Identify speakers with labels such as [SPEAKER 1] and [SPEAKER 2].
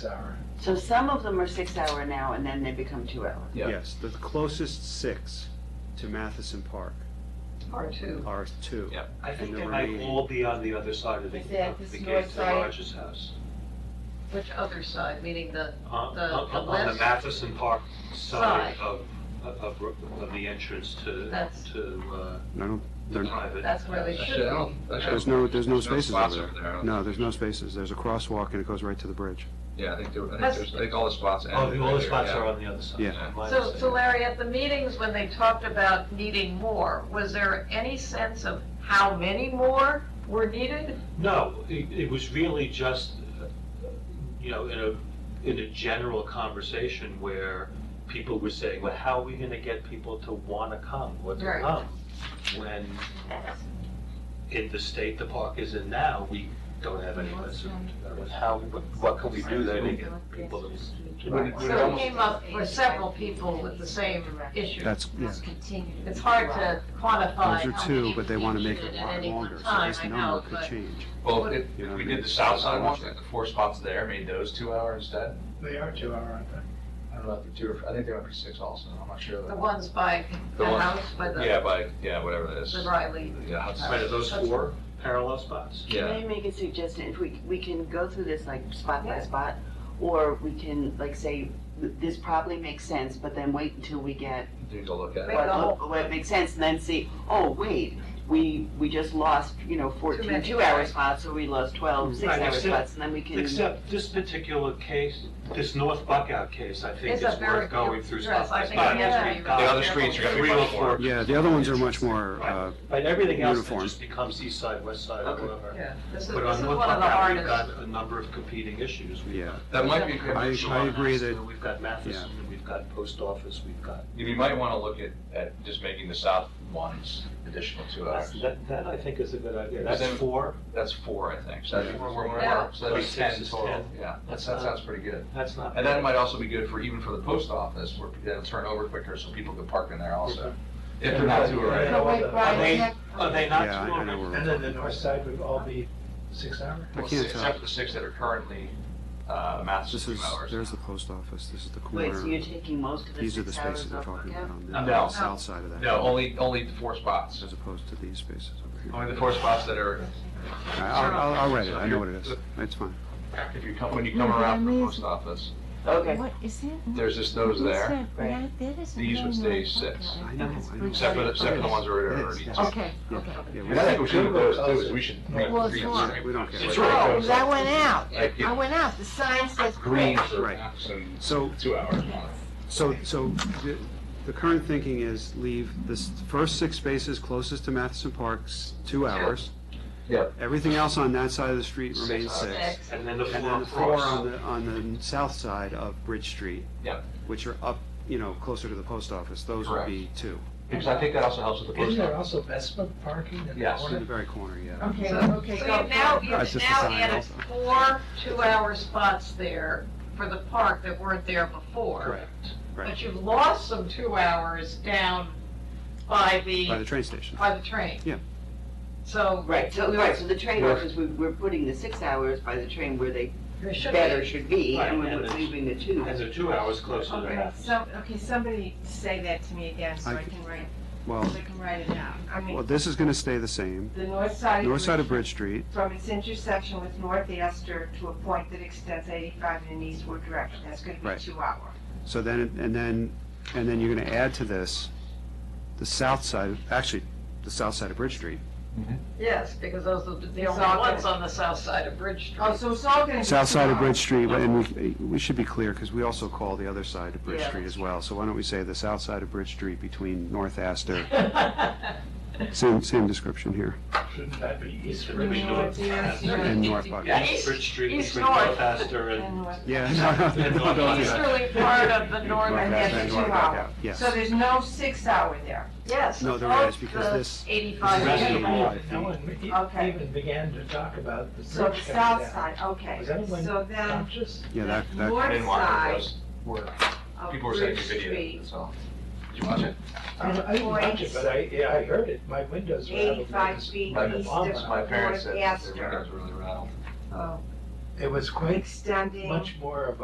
[SPEAKER 1] hour.
[SPEAKER 2] So some of them are six hour now and then they become two hour.
[SPEAKER 1] Yeah.
[SPEAKER 3] Yes, the closest six to Matheson Park
[SPEAKER 4] R two.
[SPEAKER 3] are two.
[SPEAKER 1] Yeah.
[SPEAKER 5] I think
[SPEAKER 3] And
[SPEAKER 5] they
[SPEAKER 3] the
[SPEAKER 5] might
[SPEAKER 3] remaining-
[SPEAKER 5] all be on the other side of the,
[SPEAKER 6] Is that
[SPEAKER 5] of the
[SPEAKER 6] this
[SPEAKER 5] gate
[SPEAKER 6] north
[SPEAKER 5] to
[SPEAKER 6] side?
[SPEAKER 5] Rogers House.
[SPEAKER 4] Which other side, meaning the,
[SPEAKER 5] On,
[SPEAKER 4] The-
[SPEAKER 5] on-
[SPEAKER 4] the
[SPEAKER 5] on the
[SPEAKER 4] west
[SPEAKER 5] Matheson Park side
[SPEAKER 4] side.
[SPEAKER 5] of, of, of the entrance to,
[SPEAKER 4] That's-
[SPEAKER 5] to, uh,
[SPEAKER 3] I don't,
[SPEAKER 5] the
[SPEAKER 3] they're-
[SPEAKER 5] private.
[SPEAKER 4] that's where they should
[SPEAKER 1] Actually, I
[SPEAKER 4] be.
[SPEAKER 1] don't- actually, I
[SPEAKER 3] there's
[SPEAKER 1] don't-
[SPEAKER 3] no, there's no spaces
[SPEAKER 1] spots
[SPEAKER 3] over
[SPEAKER 1] I
[SPEAKER 3] there.
[SPEAKER 1] don't
[SPEAKER 3] No,
[SPEAKER 1] think.
[SPEAKER 3] there's no spaces. There's a crosswalk and it goes right to the bridge.
[SPEAKER 1] Yeah, I think there, I think
[SPEAKER 4] That's-
[SPEAKER 1] there's, I think all the spots.
[SPEAKER 5] Oh,
[SPEAKER 1] ended
[SPEAKER 5] the- all the
[SPEAKER 1] there,
[SPEAKER 5] spots
[SPEAKER 1] yeah.
[SPEAKER 5] are on the other side.
[SPEAKER 3] Yeah.
[SPEAKER 5] my
[SPEAKER 4] So, so
[SPEAKER 5] understanding.
[SPEAKER 4] Larry, at the meetings when they talked about needing more, was there any sense of how many more were needed?
[SPEAKER 5] No, it, it was really just, uh, you know, in a, in a general conversation where people were saying, well, how are we gonna get people to wanna come or to
[SPEAKER 4] Right.
[SPEAKER 5] come? When in the state the park is in now, we don't have any list. of- How, what, what can we do there to get people to?
[SPEAKER 1] Would it- would it
[SPEAKER 4] So it
[SPEAKER 1] almost-
[SPEAKER 4] came up for several people with the same issue.
[SPEAKER 3] That's, yeah.
[SPEAKER 4] It's hard to quantify.
[SPEAKER 3] Those are
[SPEAKER 4] how
[SPEAKER 3] two,
[SPEAKER 4] many
[SPEAKER 3] but they want to
[SPEAKER 4] people
[SPEAKER 3] make
[SPEAKER 4] needed
[SPEAKER 3] it a
[SPEAKER 4] at
[SPEAKER 3] lot
[SPEAKER 4] any one
[SPEAKER 3] longer, so
[SPEAKER 4] time,
[SPEAKER 3] this
[SPEAKER 4] I
[SPEAKER 3] number
[SPEAKER 4] know,
[SPEAKER 3] could
[SPEAKER 4] but-
[SPEAKER 3] change.
[SPEAKER 1] Well, if, if we did the south side ones, like the four spots there, made those two hour instead.
[SPEAKER 7] They are two hour, aren't they?
[SPEAKER 1] I don't know if they're two, or I think they went for six also, I'm not sure.
[SPEAKER 4] The ones by
[SPEAKER 1] The
[SPEAKER 4] the
[SPEAKER 1] one-
[SPEAKER 4] house, by
[SPEAKER 1] Yeah,
[SPEAKER 4] the,
[SPEAKER 1] by, yeah, whatever that is.
[SPEAKER 4] the Riley.
[SPEAKER 1] Yeah, Hudson.
[SPEAKER 5] Right, are those four parallel spots?
[SPEAKER 2] Can
[SPEAKER 1] Yeah.
[SPEAKER 2] I make a suggestion, if we, we can go through this like spot by
[SPEAKER 4] Yeah.
[SPEAKER 2] spot, or we can like say, this probably makes sense, but then wait until we get
[SPEAKER 1] Need to look at
[SPEAKER 4] Wait,
[SPEAKER 1] it.
[SPEAKER 2] what,
[SPEAKER 4] the
[SPEAKER 2] look- what makes sense, and then see, oh, wait, we, we just lost, you know, fourteen
[SPEAKER 4] many.
[SPEAKER 2] two-hour spots, so we lost twelve
[SPEAKER 5] Right,
[SPEAKER 2] six-hour
[SPEAKER 5] except-
[SPEAKER 2] spots, and then we can.
[SPEAKER 5] Except this particular case, this North Buckout case, I think
[SPEAKER 4] It's
[SPEAKER 5] is
[SPEAKER 4] a very
[SPEAKER 5] worth going
[SPEAKER 4] good
[SPEAKER 5] through
[SPEAKER 4] dress.
[SPEAKER 5] spot by
[SPEAKER 4] I think
[SPEAKER 5] spot.
[SPEAKER 4] we have to
[SPEAKER 5] because
[SPEAKER 4] be
[SPEAKER 5] we've got
[SPEAKER 1] The other streets are gonna be
[SPEAKER 5] three or
[SPEAKER 3] oh
[SPEAKER 1] much more.
[SPEAKER 5] four
[SPEAKER 3] Yeah, the other ones are much more, uh,
[SPEAKER 5] But everything else then
[SPEAKER 3] Uniform.
[SPEAKER 5] just becomes east side, west side, or
[SPEAKER 2] Okay.
[SPEAKER 5] whatever.
[SPEAKER 4] Yeah, this is,
[SPEAKER 5] But
[SPEAKER 4] this
[SPEAKER 5] on
[SPEAKER 4] is
[SPEAKER 5] North
[SPEAKER 4] one of the
[SPEAKER 5] Buckout, we've
[SPEAKER 4] hardest.
[SPEAKER 5] got a number of competing issues. We've
[SPEAKER 3] yeah.
[SPEAKER 5] got-
[SPEAKER 1] That might be a good
[SPEAKER 5] we've got
[SPEAKER 3] I-
[SPEAKER 5] Shaw
[SPEAKER 3] I agree
[SPEAKER 5] Hospital,
[SPEAKER 3] that-
[SPEAKER 5] We've got Matheson, and we've got post office, we've got,
[SPEAKER 1] You might want to look at, at just making the south ones additional two hours.
[SPEAKER 5] that, that I think is a good idea.
[SPEAKER 1] Because
[SPEAKER 5] That's
[SPEAKER 1] then-
[SPEAKER 5] four,
[SPEAKER 1] That's four, I think. So that's four, four,
[SPEAKER 4] Yeah.
[SPEAKER 1] four, so that's
[SPEAKER 5] Six
[SPEAKER 1] ten
[SPEAKER 5] is
[SPEAKER 1] total.
[SPEAKER 5] 10.
[SPEAKER 1] Yeah, that
[SPEAKER 5] That's
[SPEAKER 1] that
[SPEAKER 5] not-
[SPEAKER 1] sounds pretty good.
[SPEAKER 5] that's not.
[SPEAKER 1] And that might also be good for, even for the post office, where it'll turn over quicker, so people can park in there also. If they're not too
[SPEAKER 5] Yeah.
[SPEAKER 1] early.
[SPEAKER 5] Are they-
[SPEAKER 6] Brian,
[SPEAKER 5] Are they
[SPEAKER 3] Yeah,
[SPEAKER 5] not
[SPEAKER 3] I-
[SPEAKER 5] two
[SPEAKER 3] I know
[SPEAKER 5] already?
[SPEAKER 3] we're-
[SPEAKER 7] And then the north side would all be six hour?
[SPEAKER 3] I
[SPEAKER 1] Well,
[SPEAKER 3] can't
[SPEAKER 1] six-
[SPEAKER 3] tell.
[SPEAKER 1] Except for the six that are currently, uh, maps of
[SPEAKER 3] This
[SPEAKER 1] two
[SPEAKER 3] is,
[SPEAKER 1] hours.
[SPEAKER 3] there's the post office, this is the
[SPEAKER 2] Wait, so you're
[SPEAKER 3] corner.
[SPEAKER 2] taking most of the
[SPEAKER 3] These are the
[SPEAKER 2] six hours
[SPEAKER 3] spaces I'm
[SPEAKER 2] off the
[SPEAKER 3] talking
[SPEAKER 2] cap?
[SPEAKER 3] about on the-
[SPEAKER 1] No.
[SPEAKER 3] on the south side of that.
[SPEAKER 1] No, only, only the four spots.
[SPEAKER 3] As opposed to these spaces over here.
[SPEAKER 1] Only the four spots that are,
[SPEAKER 3] I- I'll, I'll- I'll write it, I know what it is. It's fine.
[SPEAKER 1] if you come, when you come around from the post office,
[SPEAKER 2] Okay.
[SPEAKER 6] What is it?
[SPEAKER 1] there's just those there,
[SPEAKER 2] Right.
[SPEAKER 1] These would stay six.
[SPEAKER 3] I know, I know.
[SPEAKER 1] except for, the- except for the ones that are already.
[SPEAKER 3] Yes, yes.
[SPEAKER 6] Okay, okay.
[SPEAKER 3] Yeah,
[SPEAKER 1] And I think
[SPEAKER 3] we-
[SPEAKER 1] we should do those too, is we should.
[SPEAKER 6] Well, it's not.
[SPEAKER 3] We don't care.
[SPEAKER 1] It's
[SPEAKER 6] Oh,
[SPEAKER 1] really
[SPEAKER 6] 'cause I went out.
[SPEAKER 1] Like,
[SPEAKER 6] I
[SPEAKER 1] yeah,
[SPEAKER 6] went out. The sign says.
[SPEAKER 1] green for
[SPEAKER 3] Right.
[SPEAKER 1] maps and
[SPEAKER 3] So,
[SPEAKER 1] two hours.
[SPEAKER 3] So, so the, the current thinking is leave the s- first six spaces closest to Matheson Parks, two hours.
[SPEAKER 1] Yep.
[SPEAKER 3] Everything else on that side of the street
[SPEAKER 1] Six
[SPEAKER 3] remains
[SPEAKER 1] hours.
[SPEAKER 3] six.
[SPEAKER 4] Six.
[SPEAKER 5] And then the
[SPEAKER 3] And
[SPEAKER 5] four
[SPEAKER 3] then the four
[SPEAKER 5] across.
[SPEAKER 3] on the, on the south side of Bridge Street.
[SPEAKER 1] Yep.
[SPEAKER 3] Which are up, you know, closer to the post office, those would
[SPEAKER 1] Correct.
[SPEAKER 3] be two.
[SPEAKER 1] Because I think that also helps with the
[SPEAKER 7] Isn't
[SPEAKER 1] post
[SPEAKER 7] there
[SPEAKER 1] office.
[SPEAKER 7] also Vespa parking in the
[SPEAKER 1] Yes.
[SPEAKER 3] In
[SPEAKER 7] corner?
[SPEAKER 3] the very corner, yeah.
[SPEAKER 6] Okay,
[SPEAKER 4] So
[SPEAKER 6] okay.
[SPEAKER 4] you've
[SPEAKER 6] go
[SPEAKER 4] now,
[SPEAKER 6] for it.
[SPEAKER 3] That's
[SPEAKER 4] you've
[SPEAKER 3] just
[SPEAKER 4] now
[SPEAKER 3] the sign
[SPEAKER 4] added
[SPEAKER 3] also.
[SPEAKER 4] four two-hour spots there for the park that weren't there before.
[SPEAKER 3] Correct,
[SPEAKER 4] But
[SPEAKER 3] right,
[SPEAKER 4] you've lost some two hours down by
[SPEAKER 3] by the
[SPEAKER 4] the,
[SPEAKER 3] train station.
[SPEAKER 4] by the train.
[SPEAKER 3] Yeah.
[SPEAKER 4] So
[SPEAKER 2] Right, so, right, so the train
[SPEAKER 1] Where-
[SPEAKER 2] office, we, we're putting the six hours by the train where they
[SPEAKER 4] there should
[SPEAKER 2] better
[SPEAKER 4] be.
[SPEAKER 2] should be, and
[SPEAKER 5] Right,
[SPEAKER 2] we're
[SPEAKER 5] and it's-
[SPEAKER 2] leaving the two.
[SPEAKER 5] And they're two hours closer to
[SPEAKER 6] Okay,
[SPEAKER 5] that.
[SPEAKER 6] so, okay, somebody say that to me again so
[SPEAKER 3] I
[SPEAKER 6] I
[SPEAKER 3] c-
[SPEAKER 6] can write, so
[SPEAKER 3] Well,
[SPEAKER 6] I can write it down. I
[SPEAKER 3] well,
[SPEAKER 6] mean,
[SPEAKER 3] this is gonna stay the same.
[SPEAKER 6] the north side.
[SPEAKER 3] North side of Bridge Street,
[SPEAKER 6] From its intersection with North Astor to a point that extends eighty-five in an eastward direction. That's gonna be
[SPEAKER 3] Right.
[SPEAKER 6] two hour.
[SPEAKER 3] so then, and then, and then you're gonna add to this the south side, actually, the south side of Bridge Street.
[SPEAKER 4] Yes, because those are the only
[SPEAKER 6] all
[SPEAKER 4] ones on the south side of Bridge Street.
[SPEAKER 6] Oh, so it's all gonna be.
[SPEAKER 3] South
[SPEAKER 6] two
[SPEAKER 3] side of
[SPEAKER 6] hour.
[SPEAKER 3] Bridge Street, but- and we, we should be clear, because we also call the other side of Bridge
[SPEAKER 4] Yeah.
[SPEAKER 3] Street as well. So why don't we say the south side of Bridge Street between North Astor, same, same description here,
[SPEAKER 7] Shouldn't that be east
[SPEAKER 5] Should
[SPEAKER 7] or
[SPEAKER 5] we
[SPEAKER 6] You know what,
[SPEAKER 5] do it?
[SPEAKER 6] dear?
[SPEAKER 5] Yeah.
[SPEAKER 3] and North Buckout.
[SPEAKER 5] East Bridge Street,
[SPEAKER 4] East
[SPEAKER 5] between
[SPEAKER 4] north.
[SPEAKER 5] North Astor and
[SPEAKER 6] And North-
[SPEAKER 3] Yeah, no,
[SPEAKER 5] And
[SPEAKER 3] no,
[SPEAKER 5] North
[SPEAKER 3] don't do that.
[SPEAKER 4] Easterly part of the northern
[SPEAKER 6] And
[SPEAKER 3] Right.
[SPEAKER 4] end.
[SPEAKER 6] that's
[SPEAKER 3] and
[SPEAKER 6] two
[SPEAKER 3] North
[SPEAKER 6] hour.
[SPEAKER 3] Buckout, yes.
[SPEAKER 6] So there's no six hour there.
[SPEAKER 4] Yes.
[SPEAKER 3] No, there
[SPEAKER 4] above
[SPEAKER 3] is, because
[SPEAKER 4] the
[SPEAKER 3] this-
[SPEAKER 4] Eighty-five.
[SPEAKER 5] Rest
[SPEAKER 4] feet.
[SPEAKER 5] of all-
[SPEAKER 3] Right.
[SPEAKER 7] No one e-
[SPEAKER 6] Okay.
[SPEAKER 7] even began to talk about the
[SPEAKER 6] So the
[SPEAKER 7] bridge coming
[SPEAKER 6] south
[SPEAKER 7] down.
[SPEAKER 6] side, okay.
[SPEAKER 7] Was anyone
[SPEAKER 6] So then,
[SPEAKER 7] conscious?
[SPEAKER 3] Yeah,
[SPEAKER 6] the
[SPEAKER 3] that, that,
[SPEAKER 1] I
[SPEAKER 6] north
[SPEAKER 1] didn't watch
[SPEAKER 6] side
[SPEAKER 1] it, but it was-
[SPEAKER 6] of
[SPEAKER 1] people were sending
[SPEAKER 6] Bridge
[SPEAKER 1] me video,
[SPEAKER 6] Street,
[SPEAKER 1] that's all. Did you watch it?
[SPEAKER 7] I don't- I didn't watch it,
[SPEAKER 6] Points.
[SPEAKER 7] but I, yeah, I heard it. My windows were out. of
[SPEAKER 6] eighty-five
[SPEAKER 7] this
[SPEAKER 6] feet
[SPEAKER 1] My-
[SPEAKER 6] east
[SPEAKER 7] bomb.
[SPEAKER 6] of
[SPEAKER 1] My parents
[SPEAKER 6] North
[SPEAKER 1] said that their
[SPEAKER 6] Astor.
[SPEAKER 1] windows were really rattled.
[SPEAKER 6] Oh, It was quite
[SPEAKER 8] extending.
[SPEAKER 6] much more of